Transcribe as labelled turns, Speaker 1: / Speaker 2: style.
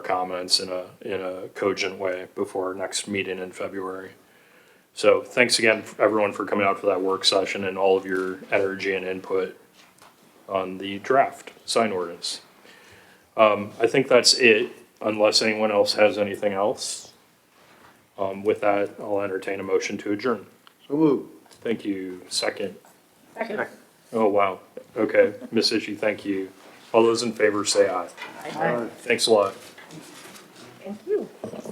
Speaker 1: comments in a, in a cogent way before our next meeting in February. So thanks again, f- everyone, for coming out for that work session and all of your energy and input on the draft sign ordinance. Um, I think that's it, unless anyone else has anything else. Um, with that, I'll entertain a motion to adjourn.
Speaker 2: So moved.
Speaker 1: Thank you. Second.
Speaker 3: Second.
Speaker 1: Oh, wow. Okay. Miss Ishi, thank you. All those in favor say aye. Thanks a lot.
Speaker 3: Thank you.